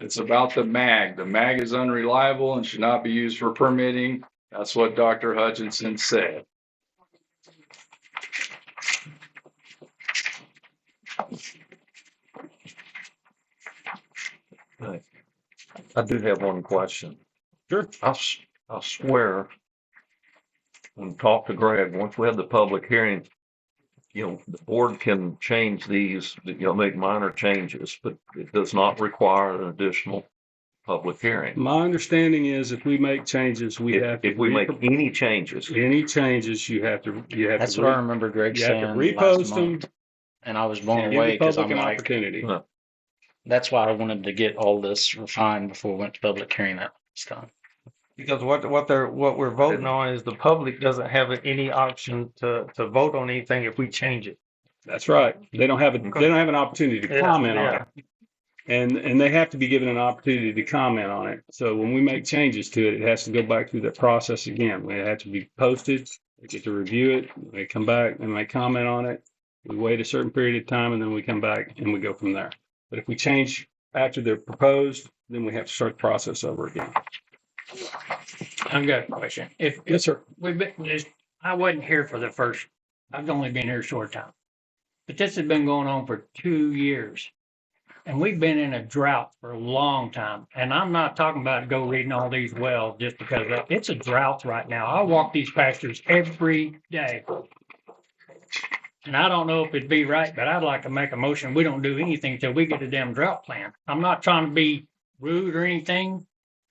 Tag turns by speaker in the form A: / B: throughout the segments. A: It's about the mag. The mag is unreliable and should not be used for permitting. That's what Dr. Hutchinson said.
B: I do have one question. Sure. I, s- I swear, when talk to Greg, once we have the public hearing, you know, the board can change these, you know, make minor changes, but it does not require an additional public hearing.
C: My understanding is if we make changes, we
B: If,
C: have. to
B: if we make
C: repro-
B: any changes,
C: Any changes, you have to, you have to.
D: That's what I remember Greg
C: You have to
D: saying. last
C: repost them
D: month, And I was
C: and
D: blown
C: give
D: away
C: the
D: because I'm
C: public an
D: like,
C: opportunity.
D: that's why I wanted to get all this refined before we went to public hearing that was done.
E: Because what, what they're, what we're voting on is the public doesn't have any option to, to vote on anything if we change it.
C: That's right. They don't have, a. they don't have an opportunity to
E: Yeah,
C: comment on
E: yeah.
C: it. And, and they have to be given an opportunity to comment on it. So when we make changes to it, it has to go back through that process again. It has to be posted. They get to review it. They come back and they comment on it. We wait a certain period of time and then we come back and we go from there. But if we change after they're proposed, then we have to start the process over again.
F: I've got a question. If, if
C: Yes, sir.
F: we've been, this- I wasn't here for the first, I've only been here a short time. But this has been going on for two years. And we've been in a drought for a long time. And I'm not talking about go reading all these wells just because of- it's a drought right now. I walk these pastures every day. And I don't know if it'd be right, but I'd like to make a motion. We don't do anything till we get a damn drought plan. I'm not trying to be rude or anything.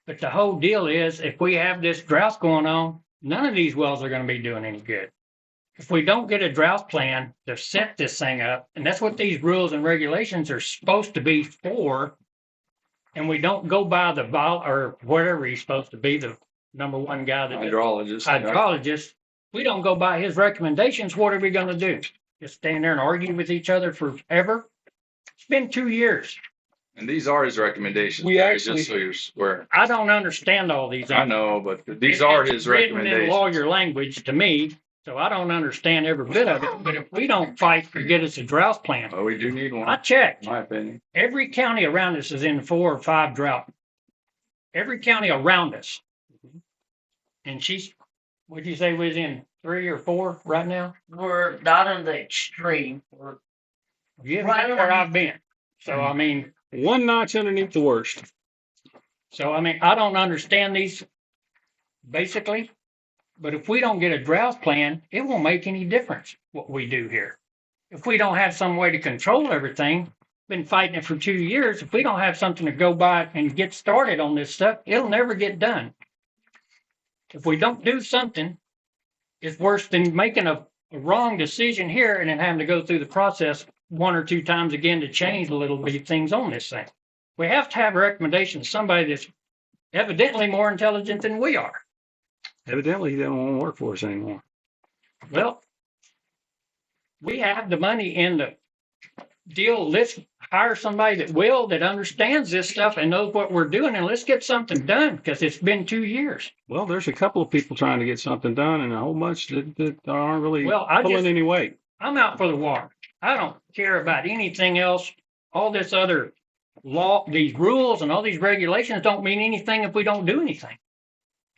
F: But the whole deal is if we have this drought going on, none of these wells are gonna be doing any good. If we don't get a drought plan to set this thing up, and that's what these rules and regulations are supposed to be for. And we don't go by the vol, or whatever he's supposed to be, the number one guy that does
A: Hydrologist.
F: hydrologist, we don't go by his recommendations, what are we gonna do? Just stand there and argue with each other forever? It's been two years.
A: And these are his recommendations.
C: We
A: Barry,
C: actually-
A: Just so you're aware.
F: I don't understand all these.
A: I know, but these
F: It-
A: are
F: it's
A: his
F: written in
A: recommendations.
F: Lawyer language to me, so I don't understand every bit of it, but if we don't fight to get us a drought plan,
A: But Oh, we do need
F: I
A: one,
F: checked,
A: in my opinion.
F: every county around us is in four or five drought. Every county around us. And she's, would you say was in three or four right now?
G: We're not on the extreme. We're
F: Yeah, that's where I've been. So I mean,
C: One notch underneath the worst.
F: So I mean, I don't understand these basically, but if we don't get a drought plan, it won't make any difference what we do here. If we don't have some way to control everything, been fighting it for two years, if we don't have something to go by and get started on this stuff, it'll never get done. If we don't do something, it's worse than making a, a wrong decision here and then having to go through the process one or two times again to change the little bitty things on this thing we have to have a recommendation to somebody that's evidently more intelligent than we are.
C: Evidently, he didn't want to work for us anymore.
F: Well, we have the money in the deal. Let's hire somebody that will, that understands this stuff and knows what we're doing and let's get something done because it's been two years.
C: Well, there's a couple of people trying to get something done and a whole bunch that, that aren't really
F: Well, I
C: pulling
F: just-
C: any weight.
F: I'm out for the water. I don't care about anything else. All this other law, these rules and all these regulations don't mean anything if we don't do anything.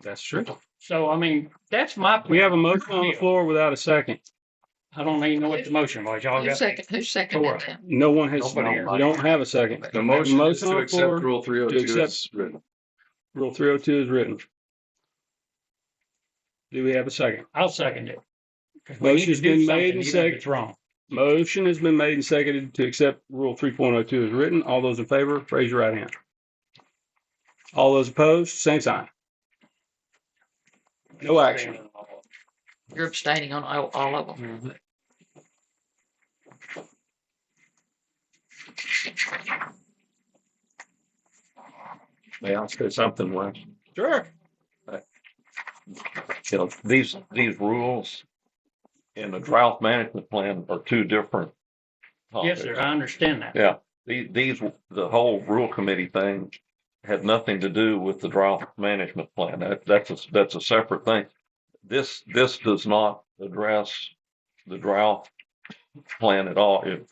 C: That's true.
F: So, I mean, that's my.
C: We have a motion on the floor without a second.
F: I don't even know what the motion was. Y'all
H: Who
F: got.
H: second, who
F: Four.
H: seconded that?
C: No one has,
A: Nobody here.
C: we don't have a second.
A: The motion is
C: Motion on
A: to
C: the
A: accept
C: floor
A: Rule three oh
C: to
A: two
C: accept-
A: as written.
C: Rule three oh two is written. Do we have a second?
F: I'll second it. 'Cause we need to
C: Motion's
F: do
C: been
F: something,
C: made and
F: even if
C: seconded.
F: It's wrong.
C: Motion has been made and seconded to accept Rule three point oh two is written. All those in favor, raise your right hand. All those opposed, same sign. No action.
H: You're abstaining on all, all of them.
B: may I say something, Wes?
C: Sure.
B: you know, these, these rules and the drought management plan are two different.
F: Yes, sir, I understand that.
B: Yeah, the- these, the whole rule committee thing had nothing to do with the drought management plan. That, that's, a- that's a separate thing. This, this does not address the drought plan at all. It